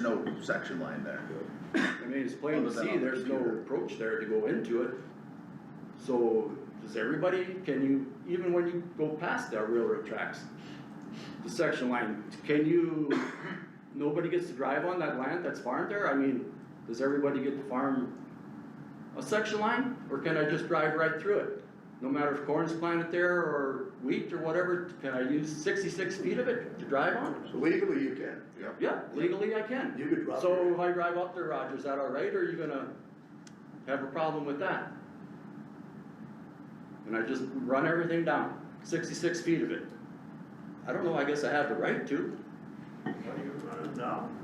no section line there. I mean, it's plain to Other than see, on the there's no computer. approach there to go into it. So, does everybody, can you, even when you go past the railroad tracks, the section line, can you, nobody gets to drive on that land that's farmed there? I mean, does everybody get to farm a section line, or can I just drive right through it? No matter if corn's planted there, or wheat, or whatever, can I use sixty-six feet of it to drive on? Legally, you can. Yep. Yeah, legally I can. You could drop. So if your- I drive up there, Roger, is that all right, or are you gonna have a problem with that? And I just run everything down, sixty-six feet of it. I don't know, I guess I have the right to, What do you run it down?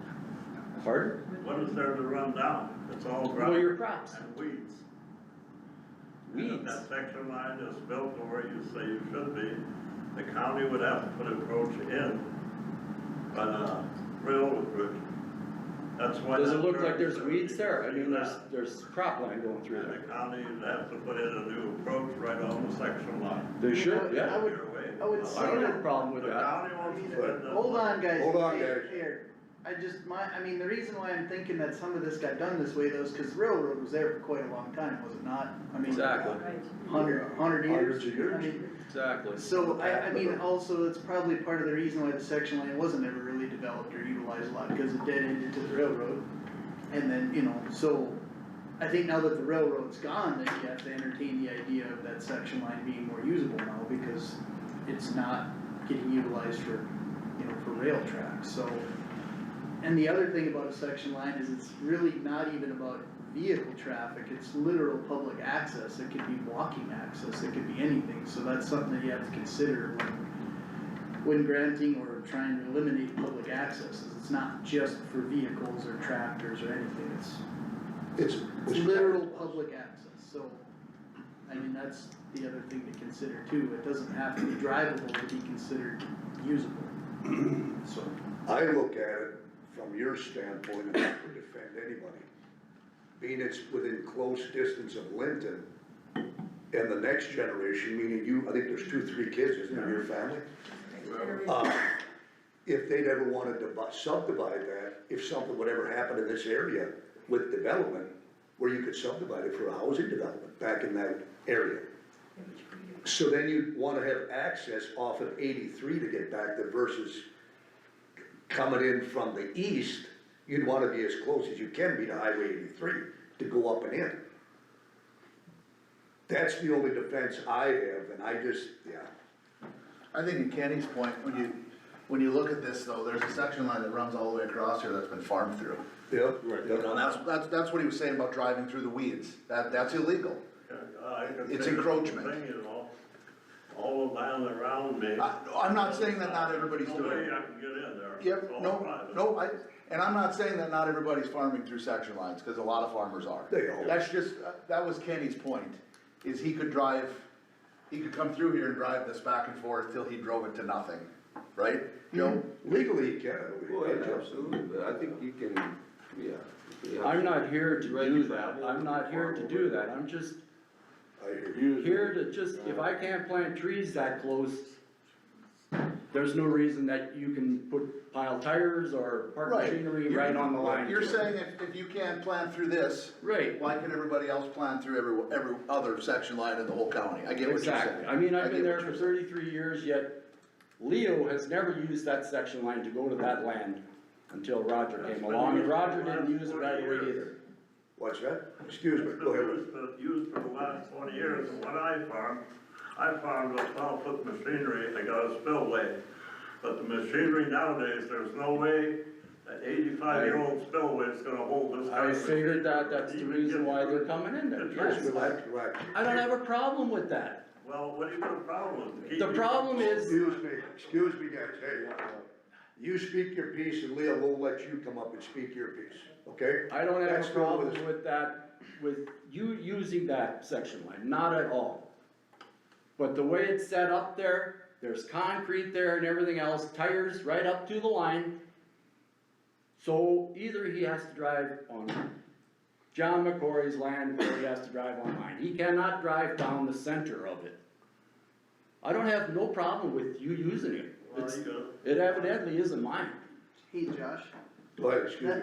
pardon? What is there to run down? It's all Well, gravel your crops, and weeds. And if weeds, that section line is built to where you say you should be, the county would have to put approach in by the railroad bridge. That's why. does it that look like curve there's is there. weeds You there? I can see mean, there's, that. there's crop line going through And there. the county would have to put in a new approach right on the section line. They should, I yeah, would- Your way. I would Well, say I don't have a that- problem The with that. county wants to put in a- Hold on, guys. Hold on, Here, guys. Here, I just, my, I mean, the reason why I'm thinking that some of this got done this way though is cause railroad was there for quite a long time, was it not? I mean, Exactly, Hundred, hundred years. Hundreds of years. I mean, exactly. So I, I mean, also, it's probably part of the reason why the section lane wasn't ever really developed or utilized a lot, cause it dead ended to the railroad. And then, you know, so, I think now that the railroad's gone, then you have to entertain the idea of that section line being more usable now, because it's not getting utilized for, you know, for rail tracks, so. And the other thing about a section line is it's really not even about vehicle traffic, it's literal public access, it could be walking access, it could be anything, so that's something that you have to consider when. When granting or trying to eliminate public access, is it's not just for vehicles or tractors or anything, it's It's, it's literal public access, so, I mean, that's the other thing to consider too, it doesn't have to be drivable to be considered usable. So, I look at it from your standpoint, and I could defend anybody. Being it's within close distance of Linton, and the next generation, meaning you, I think there's two, three kids, isn't there, in your family? Uh, If they'd ever wanted to bu- subdivide that, if something would ever happen in this area with development, where you could subdivide it for a housing development back in that area. So then you'd wanna have access off of eighty-three to get back there versus coming in from the east, you'd wanna be as close as you can be to Highway eighty-three to go up and in. That's the only defense I have, and I just, yeah, I think in Kenny's point, when you, when you look at this though, there's a section line that runs all the way across here that's been farmed through. yep. You know, And that's, that's, that's what he was saying about driving through the weeds, that, that's illegal. Uh, I can It's say the encroachment. Thing is, all, all the land around me. I, I'm not saying that not everybody's No way doing it. I can get in there. It's Yep, all no, private. no, I, and I'm not saying that not everybody's farming through section lines, cause a lot of farmers are. They are. That's just, uh, that was Kenny's point, is he could drive, he could come through here and drive this back and forth till he drove it to nothing, right? Joe? Legally, you can. I believe. Well, yeah, absolutely, but I think you can, yeah. I'm not here to do that, I'm not here to do that, I'm just I hear you. Here to just, if I can't plant trees that close, there's no reason that you can put pile tires or park Right. machinery right on the line. You're saying if, if you can't plant through this, Right, why can everybody else plant through every, every other section line in the whole county? I get what you're saying. exactly. I mean, I've get been there what for you're thirty-three years, yet Leo has never used that section line to go to that land until Roger That's came been along, and used Roger for the didn't last use it 40 that way years. either. What's that? Excuse It's me, go been ahead. used for- used for the last twenty years, and when I farmed, I farmed with twelve foot machinery, I got a spillway. But the machinery nowadays, there's no way that eighty-five year old spillway is gonna hold this. kind I of figured that, machinery. that's the Even reason get- why they're coming in there, yes. Relax, relax. I don't have a problem with that. Well, what do you got a problem with? The problem is, Excuse me, excuse me, guys, hey. You speak your piece and Leah will let you come up and speak your piece, okay? I don't have That's a no problem with- with that, with you using that section line, not at all. But the way it's set up there, there's concrete there and everything else, tires right up to the line. So either he has to drive on John McCory's land or he has to drive on mine. He cannot drive down the center of it. I don't have no problem with you using it. Well, It's, you got- it evidently isn't mine. hey, Josh. Go ahead, excuse me.